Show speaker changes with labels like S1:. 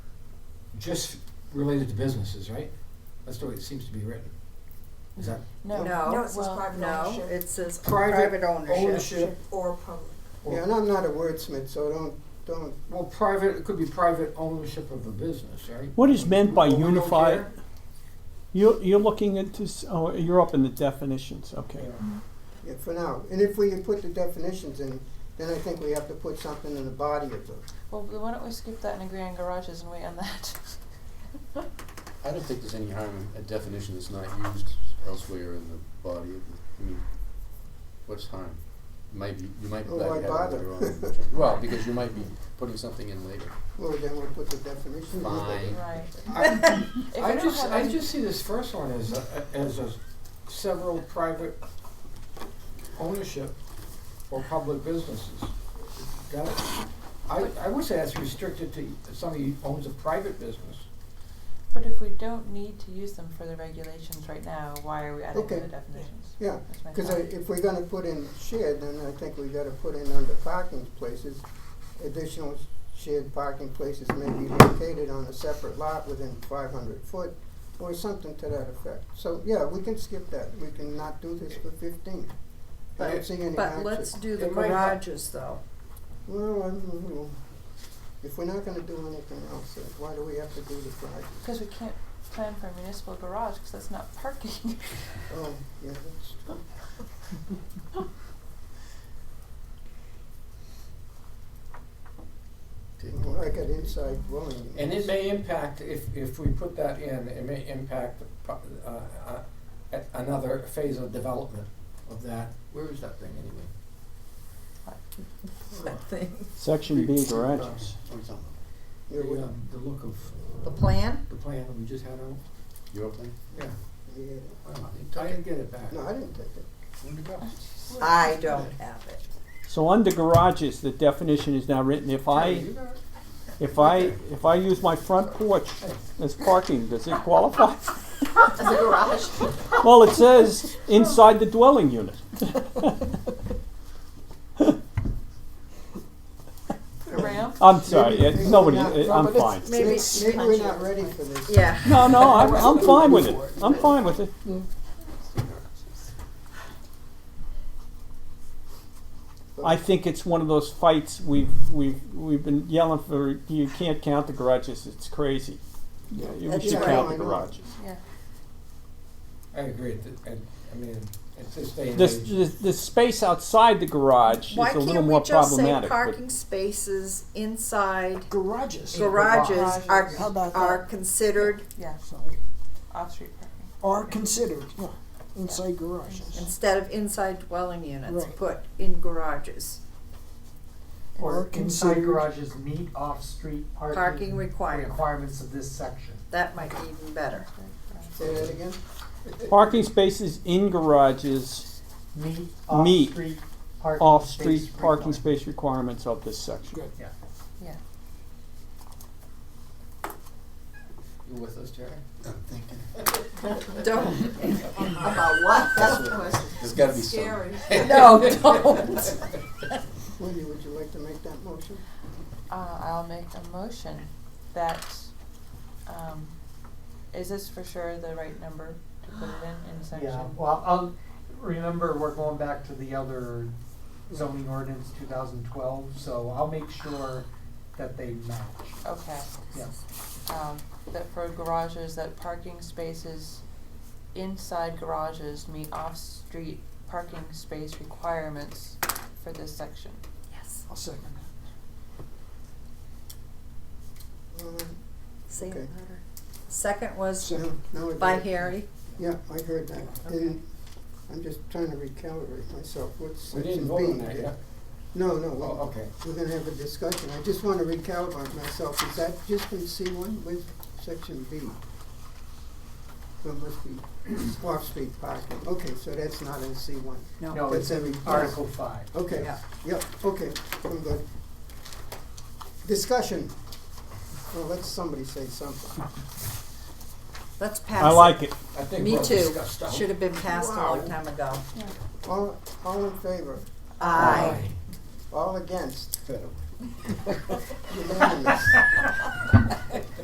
S1: just related to businesses, right? That's the way it seems to be written. Is that
S2: No,
S3: No,
S2: no,
S3: it says
S2: well,
S3: private
S2: no.
S3: ownership.
S2: It says
S1: Private
S2: private ownership.
S1: ownership
S3: Or public.
S1: or,
S4: Yeah, and I'm not a wordsmith, so don't, don't,
S1: well, private, it could be private ownership of a business, right?
S5: What is meant by
S1: We don't
S5: unified-
S1: care.
S5: You're, you're looking at this, oh, you're up in the definitions, okay.
S4: yeah, for now. And if we put the definitions in, then I think we have to put something in the body of the,
S6: Well, why don't we skip that and agree on garages and wait on that?
S7: I don't think there's any harm in a definition that's not used elsewhere in the body of the, I mean, what's harm? Might be, you might be
S4: Oh,
S7: glad
S4: why
S7: you have it
S4: bother?
S7: later on. Well, because you might be putting something in later.
S4: well, then we'll put the definition in.
S7: Fine.
S6: Right.
S1: I,
S6: If we
S1: I
S6: don't
S1: just,
S6: have
S1: I
S6: any-
S1: just see this first one as, a- as a several private ownership or public businesses. That, I, I would say that's restricted to somebody who owns a private business.
S6: But if we don't need to use them for the regulations right now, why are we adding to
S4: Okay.
S6: the definitions?
S4: Yeah,
S6: That's my
S4: Because
S6: thought.
S4: if we're gonna put in shared, then I think we gotta put in under parking places, additional shared parking places may be located on a separate lot within five hundred foot, or something to that effect. So, yeah, we can skip that, we can not do this for fifteen. I don't see any
S2: But
S4: hardship.
S2: let's do the
S1: It might not-
S2: garages though.
S4: Well, I don't know. If we're not gonna do anything else, then why do we have to do the garage?
S6: Because we can't plan for a municipal garage, because that's not parking.
S4: Oh, yeah, that's true.
S7: Okay.
S4: Well, Like an inside dwelling.
S1: And it may impact, if, if we put that in, it may impact the pro- uh, uh, a- another phase of development of that. Where is that thing anyway?
S2: That thing.
S5: Section B, garages.
S7: What's on
S4: Yeah, we-
S1: The, um, the look of
S2: The plan?
S1: the plan that we just had out?
S7: Your plan?
S1: Yeah.
S4: yeah.
S1: I didn't get it back.
S4: No, I didn't take it.
S7: Where'd it go?
S2: I don't have it.
S5: So under garages, the definition is now written, if I, if I, if I use my front porch as parking, does it qualify?
S3: As a garage?
S5: Well, it says inside the dwelling unit.
S6: Ramp?
S5: I'm sorry, yeah, nobody,
S4: Maybe
S5: I'm
S4: not,
S5: fine.
S4: Robert,
S2: Maybe
S4: Maybe,
S2: it's
S4: maybe we're not
S2: punchy.
S4: ready for this.
S2: Yeah.
S5: No, no, I'm, I'm fine with it. I'm fine with it. I think it's one of those fights we've we've we've been yelling for. You can't count the garages. It's crazy. Yeah, you
S2: That's
S5: should
S2: right.
S5: count the
S4: I know.
S5: garages.
S6: Yeah.
S1: I agree, it- it- I mean, at this day and
S5: This,
S1: age,
S5: this the space outside the garage
S2: Why
S5: is a
S2: can't
S5: little
S2: we
S5: more
S2: just say
S5: problematic. but-
S2: parking spaces inside
S8: Garages.
S2: garages are,
S6: Garages.
S8: How about
S2: are
S8: that?
S2: considered
S6: Yeah,
S8: So,
S6: off-street parking.
S8: are considered, yeah, inside garages.
S2: instead of inside dwelling units,
S8: Right.
S2: put in garages.
S8: Are
S9: Or inside
S8: considered-
S9: garages meet off-street parking.
S2: Parking requirement.
S9: Requirements of this section.
S2: That might be even better.
S4: Say that again?
S5: Parking spaces in garages
S9: Meet
S5: Meet
S9: off-street parking.
S5: off-street
S9: space
S5: parking
S9: requirement.
S5: space requirements of this section.
S8: Good.
S7: You with us, Jerry? I'm thinking.
S2: Don't,
S3: About what? That's the question.
S7: There's gotta be some.
S3: Scary.
S2: no, don't.
S4: Wendy, would you like to make that motion?
S6: Uh, I'll make a motion that, um, is this for sure the right number to put it in, in section?
S9: Yeah, well, um, remember, we're going back to the other zoning ordinance two thousand twelve, so I'll make sure that they match.
S6: Okay,
S9: Yeah,
S6: um, that for garages, that parking spaces inside garages meet off-street parking space requirements for this section.
S2: Yes.
S8: I'll second that.
S4: Um,
S2: Say it
S4: Okay.
S2: louder. Second was
S4: No, no, I
S2: by
S4: did.
S2: Harry.
S4: Yeah, I heard that. And I'm just trying to recalibrate myself. What's
S1: we
S4: section
S1: didn't
S4: B?
S1: vote on that yet.
S4: No, no,
S1: Oh,
S4: we're,
S1: okay.
S4: we're gonna have a discussion. I just wanna recalibrate myself. Is that just in C one with section B? So it must be off-street parking. Okay, so that's not in C one.
S9: no,
S4: That's
S9: it's
S4: every.
S9: Article five.
S4: Okay,
S2: Yeah.
S4: yep, okay, I'm good. Discussion. Well, let somebody say something.
S2: Let's pass
S5: I like it.
S1: I
S2: it.
S1: think
S2: Me
S1: we're
S2: too.
S1: discussed out.
S2: Should have been passed a long
S4: Wow.
S2: time ago.
S4: All, all in favor?
S2: Aye.
S4: All against?
S1: Federal.
S4: Unanimous.